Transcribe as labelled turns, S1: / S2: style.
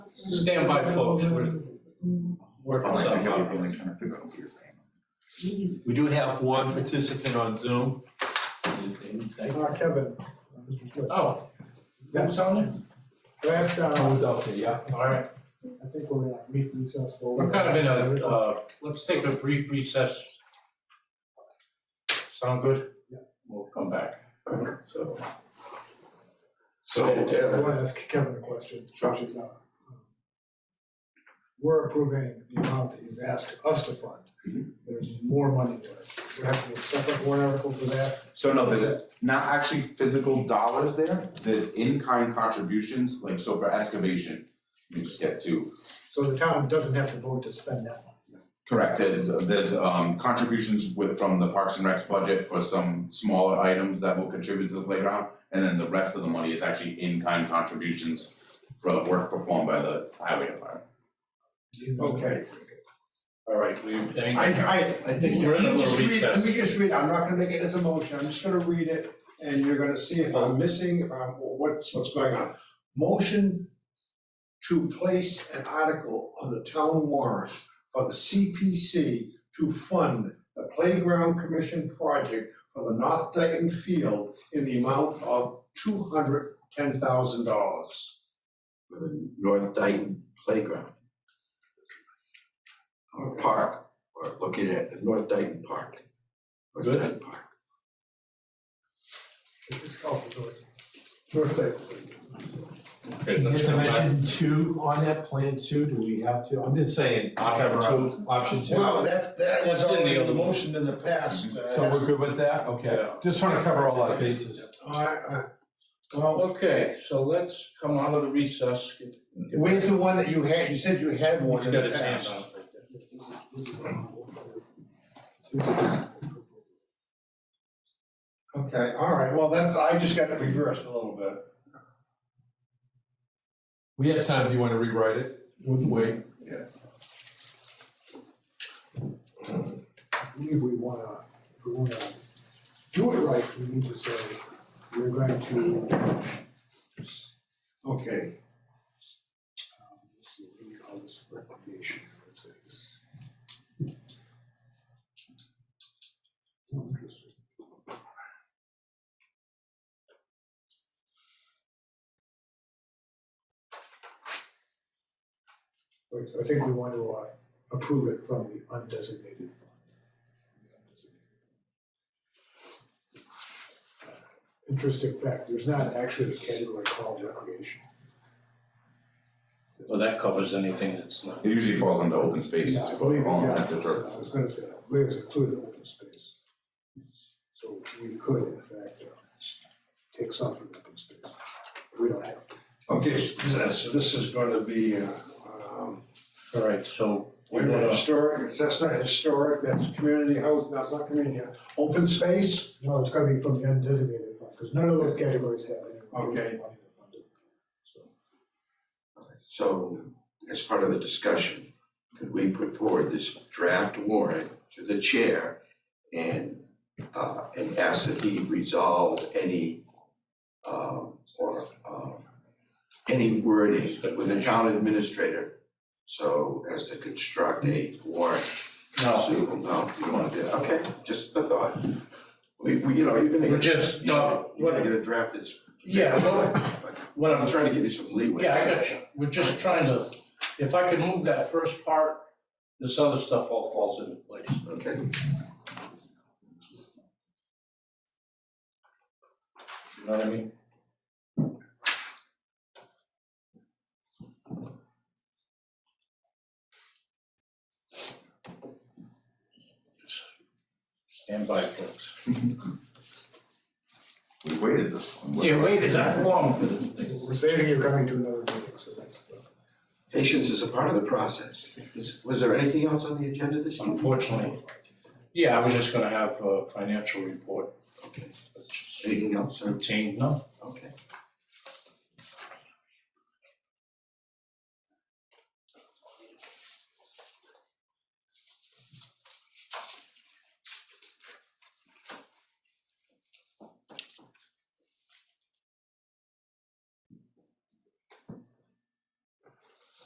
S1: Standby folks, we're, we're
S2: Oh, my
S1: ourselves.
S2: God, I'm really trying to figure out what you're saying.
S1: We do have one participant on Zoom. His name is Dyke.
S3: Uh, Kevin, uh, Mr. Smith.
S1: Oh,
S3: Yeah,
S1: who's on it?
S3: last, uh,
S1: Someone's out there, yeah, all right.
S3: I think we're gonna meet successful.
S1: We're kind of in a, uh, let's take a brief recess. Sound good?
S3: Yeah.
S1: We'll come back, so.
S2: So,
S3: I
S2: uh,
S3: want to ask Kevin a question. which is, uh, We're approving the amount that you've asked us to fund. There's more money there. We have to do a separate warrant article for that.
S2: so no, there's not actually physical dollars there, there's in-kind contributions, like, so for excavation, you just get to,
S3: So the town doesn't have to vote to spend that money.
S2: correct, there- there's, um, contributions with, from the Parks and Recs budget for some smaller items that will contribute to the playground, and then the rest of the money is actually in-kind contributions for work performed by the highway department.
S4: Okay.
S1: All right, we, any-
S4: I, I,
S1: I
S4: let
S1: think we're in a
S4: me
S1: little
S4: just read, let me
S1: recess.
S4: just read, it. I'm not gonna make it as a motion, I'm just gonna read it, and you're gonna see if I'm missing, if I'm, or what's, what's going on. Motion to place an article on the town warrant for the CPC to fund the playground commission project for the North Dayton Field in the amount of two hundred ten thousand dollars.
S5: North Dayton Playground. Or park, or located at the North Dayton Park. North
S1: Good.
S5: Dayton Park.
S3: It's called the North- North Dayton.
S1: Okay,
S6: You
S1: let's
S6: have
S1: come
S6: to
S1: back.
S6: mention two on that plan too, do we have to, I'm just saying, option two, option two.
S4: Well, that's, that was
S1: That's in the
S4: already
S1: other
S4: a
S1: one.
S4: motion in the past. uh,
S6: So we're good with that, okay,
S1: Yeah.
S6: just trying to cover all our bases.
S4: All right, all right. Well,
S1: Okay, so let's come out of the recess. Get-
S4: where's the one that you had, you said you had one
S1: He's
S4: in
S1: got
S4: the
S1: his hand
S4: past.
S1: on it right there.
S4: Okay, all right, well, that's, I just got it reversed a little bit.
S6: We have time, do you wanna rewrite it? We can wait.
S3: I believe we wanna, if we wanna do it right, we need to say, we're going to.
S4: Okay,
S3: um, let's see, What do you call this recreation? It's like this. Oh, Interesting. Wait, so I think we want to uh, approve it from the undesignated fund. Interesting fact, there's not actually a category called recreation.
S1: Well, that covers anything that's not.
S2: It usually falls under open space,
S3: Yeah, I believe,
S2: for all
S3: yeah,
S2: intents and
S3: I
S2: purposes.
S3: was gonna say, I believe it's included in open space. So we could, in fact, uh, take some from open space. We don't have to.
S4: okay, so this- so this is gonna be, uh, um,
S1: All right, so we're
S4: wait a minute,
S1: gonna,
S4: historic, that's not historic, that's community house, that's not community, house. open space?
S3: No, it's gotta be from the undesignated fund, because none of those categories have any. money
S4: Okay.
S3: to fund it.
S5: So, as part of the discussion, could we put forward this draft warrant to the chair and, uh, and ask that he resolve any, um, or, um, any wording with the town administrator, so as to construct a warrant
S1: no,
S5: Suitable, no, you don't wanna do that, okay, just a thought. We, we, you know, you're gonna.
S1: we're
S5: get-
S1: just, no,
S5: You're gonna
S1: what,
S5: get a draft that's.
S1: yeah, what- what
S5: I'm
S1: I'm
S5: trying to give you some leeway.
S1: Yeah, I got you. We're just trying to, if I could move that first part, this other stuff all falls into place.
S5: Okay.
S1: You know what I mean? Stand by, folks.
S2: We waited this long.
S1: Yeah, wait, is that long for this thing?
S3: We're saving you coming to another meeting, so that's. the-
S5: Patience is a part of the process. Is- Was there anything else on the agenda this evening?
S1: Unfortunately. Yeah, I was just gonna have a financial report. Okay.
S5: Anything else, or,
S1: Routine, no?
S5: okay.